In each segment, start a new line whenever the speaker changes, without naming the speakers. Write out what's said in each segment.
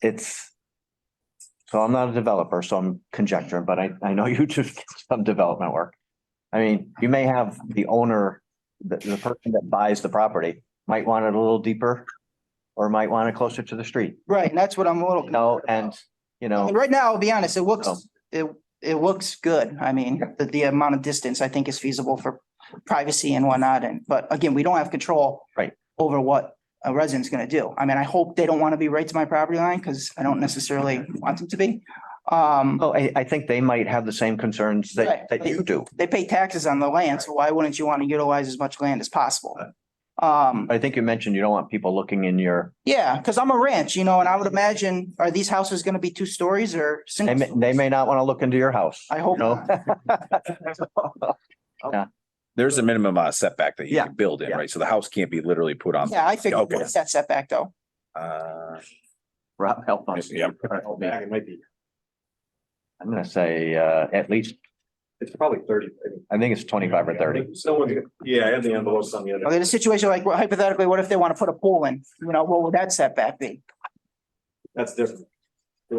it's, so I'm not a developer, so I'm conjecturing, but I, I know you do some development work. I mean, you may have the owner, the, the person that buys the property might want it a little deeper or might want it closer to the street,
Right, and that's what I'm a little.
you know,
concerned
and,
about.
you
I mean,
know,
Right now, I'll be honest, it looks,
So-
it, it looks good. I mean, the, the amount of distance I think is feasible for privacy and whatnot. And, but again, we don't have control.
Right.
Over what a resident's gonna do. I mean, I hope they don't want to be right to my property line because I don't necessarily want them to be. Um,
oh, I, I think they might have the same concerns that,
Right.
that you do.
they pay taxes on the land, so why wouldn't you want to utilize as much land as possible? Um,
I think you mentioned you don't want people looking in your,
yeah, because I'm a ranch, you know, and I would imagine, are these houses gonna be two stories or
they
single?
may, they may not want to look into your house.
I hope
you know?
There's a minimum amount of setback that you
Yeah.
can build in,
Yeah.
right? So the house can't be literally put on.
Yeah, I figured
Okay.
what's that setback though?
Uh,
Rob, help us.
Yeah.
Help me.
Yeah, it might be,
I'm gonna say, uh, at least,
it's probably thirty. I think.
I think it's twenty-five or thirty.
Someone's, yeah, I have the envelopes on the other.
Okay, in a situation like well, hypothetically, what if they want to put a pool in? You know, what would that setback be?
That's different.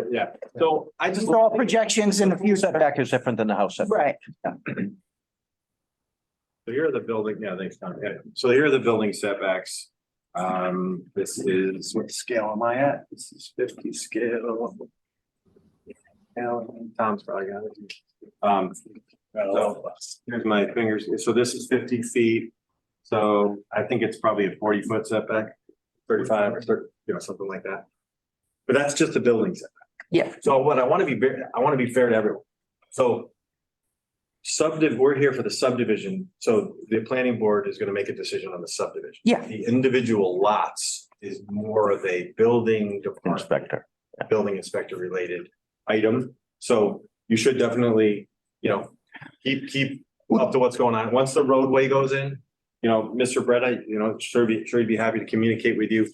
Yeah, so I just.
These are all projections in the
Your
future.
setback is different than the house setback.
Right,
So here are the building, yeah, thanks, Tom. Yeah, So here are the building setbacks. Um, this is, what scale am I at? This is fifty scale. Now, Tom's probably got it. Um, so here's my fingers. So this is fifty feet. So I think it's probably a forty foot setback, thirty-five or thirty, you know, something like that. But that's just the building setback.
Yeah.
So what I want to be, ver- I want to be fair to everyone. So Subdiv, we're here for the subdivision, so the planning board is gonna make a decision on the subdivision.
Yeah.
The individual lots is more of a building department,
Inspector.
building inspector related item. So you should definitely, you know, keep, keep up to what's going on. Once the roadway goes in, you know, Mr. Brett, I, you know, sure be, sure he'd be happy to communicate with you.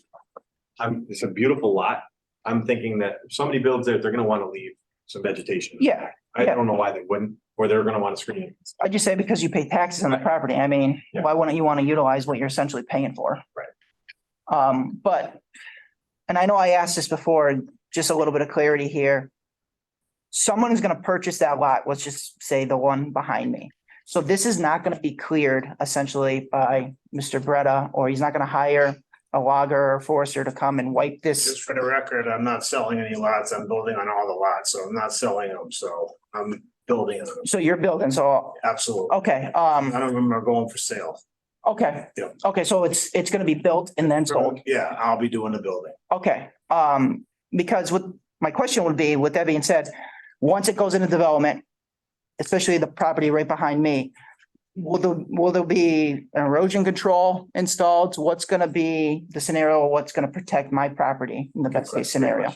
I'm, it's a beautiful lot. I'm thinking that if somebody builds it, they're gonna wanna leave some vegetation.
yeah.
I don't know why they wouldn't, or they're gonna wanna screen it.
I just say because you pay taxes on the property. I mean,
Yeah.
why wouldn't you want to utilize what you're essentially paying for?
Right.
Um, but, and I know I asked this before, just a little bit of clarity here. Someone is gonna purchase that lot, let's just say the one behind me. So this is not gonna be cleared essentially by Mr. Bretta, or he's not gonna hire a logger or forester to come and wipe
Just
this.
for the record, I'm not selling any lots. I'm building on all the lots, so I'm not selling them, so I'm building them,
So you're building, so,
absolutely.
okay,
None
um,
of them are going for sale.
okay.
Yeah.
Okay, so it's, it's gonna be built and then sold.
Yeah, I'll be doing the building.
Okay, um, because with, my question would be, with that being said, once it goes into development, especially the property right behind me, will there, will there be an erosion control installed? What's gonna be the scenario? What's gonna protect my property in the best case scenario?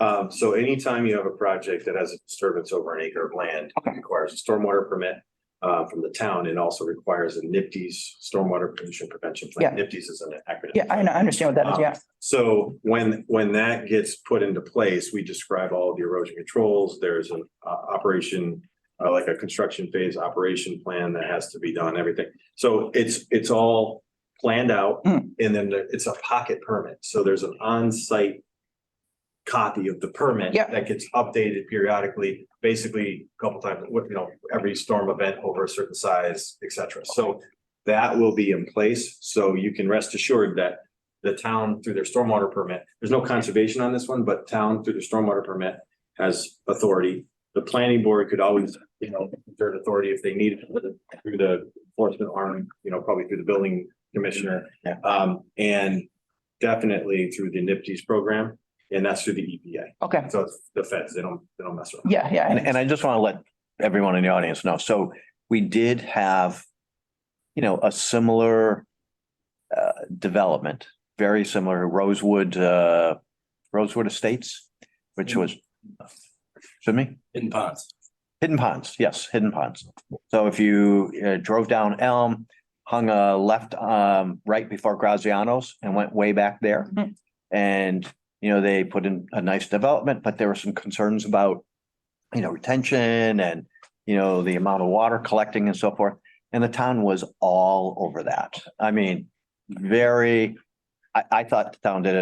Um, so anytime you have a project that has a disturbance over an acre of land, it
Okay.
requires a stormwater permit. Uh, from the town and also requires a NIPD's stormwater pollution prevention plan. NIPD's is an acronym.
Yeah, I know- I understand what that is, yeah.
So when, when that gets put into place, we describe all the erosion controls. There's an uh, operation, uh, like a construction phase operation plan that has to be done, everything. So it's, it's all planned out
Mm.
and then there- it's a pocket permit. So there's an on-site copy of the permit
Yep.
that gets updated periodically, basically a couple times, what, you know, every storm event over a certain size, et cetera. So that will be in place. So you can rest assured that the town through their stormwater permit, there's no conservation on this one, but town through the stormwater permit has authority. The planning board could always, you know, exert authority if they needed it through the enforcement arm, you know, probably through the building commissioner.
Yeah.
Um, and definitely through the NIPD's program, and that's through the EPA.
Okay,
So it's the feds, they don't, they don't mess around.
yeah, yeah.
And, and I just want to let everyone in the audience know, so we did have, you know, a similar uh, development, very similar to Rosewood, uh, Rosewood Estates, which was, excuse me?
In ponds.
Hidden Ponds, yes, Hidden Ponds. So if you uh, drove down Elm, hung a left, um, right before Graziano's and went way back there.
Mhm.
And, you know, they put in a nice development, but there were some concerns about, you know, retention and, you know, the amount of water collecting and so forth. And the town was all over that. I mean, very, I, I thought the town did a